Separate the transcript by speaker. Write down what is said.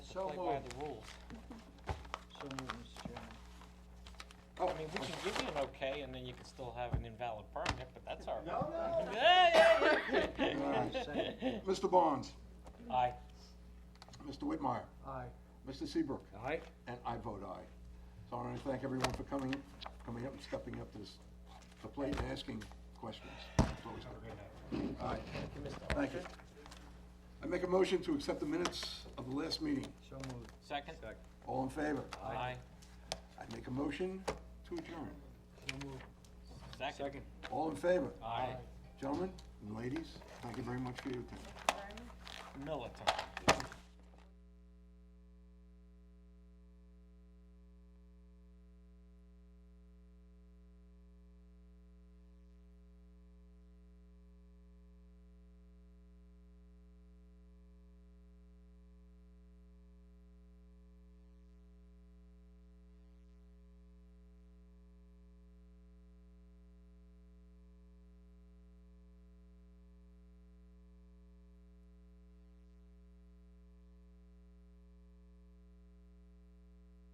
Speaker 1: So
Speaker 2: play by
Speaker 1: moved.
Speaker 2: the rules.
Speaker 1: So moved, Mr. Chairman.
Speaker 2: Oh, I mean, we can give you an okay, and then you can still have an invalid permit, but that's all right.
Speaker 3: no.
Speaker 2: Yeah, yeah,
Speaker 1: Aye,
Speaker 2: yeah.
Speaker 1: second.
Speaker 3: Mr. Barnes,
Speaker 2: Aye.
Speaker 3: Mr. Whitmire,
Speaker 1: Aye.
Speaker 3: Mr. Seabrook,
Speaker 2: Aye.
Speaker 3: and I vote aye. So I want to thank everyone for coming, coming up and stepping up to this, the plate and asking questions. It's always good. All right, thank you. I make a motion to accept the minutes of the last meeting.
Speaker 1: So moved.
Speaker 2: Second?
Speaker 3: All in favor?
Speaker 2: Aye.
Speaker 3: I make a motion to adjourn.
Speaker 1: So moved.
Speaker 2: Second?
Speaker 3: All in favor?
Speaker 2: Aye.
Speaker 3: Gentlemen and ladies, thank you very much for your attention.
Speaker 2: Militant.